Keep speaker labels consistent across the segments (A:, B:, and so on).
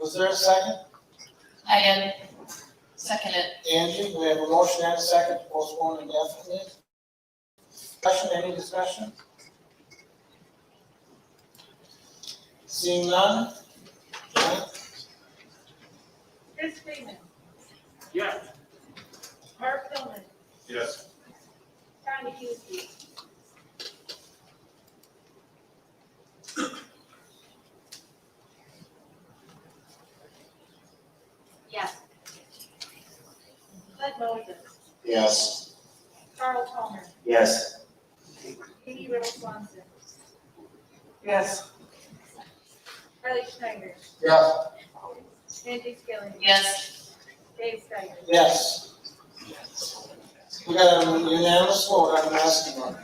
A: Was there a second?
B: I am second it.
A: Angie, we have a motion and a second to postpone indefinitely. Discussion, any discussion? Seeing none? Janet?
C: Chris Freeman.
D: Yes.
C: Herb Tillman.
D: Yes.
C: Tony Huesky. Yes. Bud Moses.
E: Yes.
C: Carl Palmer.
E: Yes.
C: Katie Riddle Swanson.
A: Yes.
C: Harley Schneider.
E: Yes.
C: Angie Skilling.
B: Yes,
C: Dave Steiger.
A: Yes. um, We got a unanimous vote on the asking one.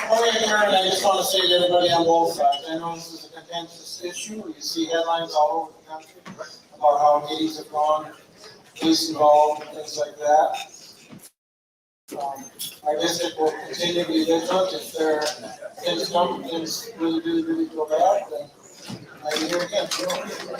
A: Before we adjourn, I just want to say to everybody on both sides, I know this is a contentious issue, you see headlines all over the country about how meetings have gone, police involved, things like that. Um, Our district will continue to be vigilant if there are things come, things really, really, really go bad, then I hear again. you know.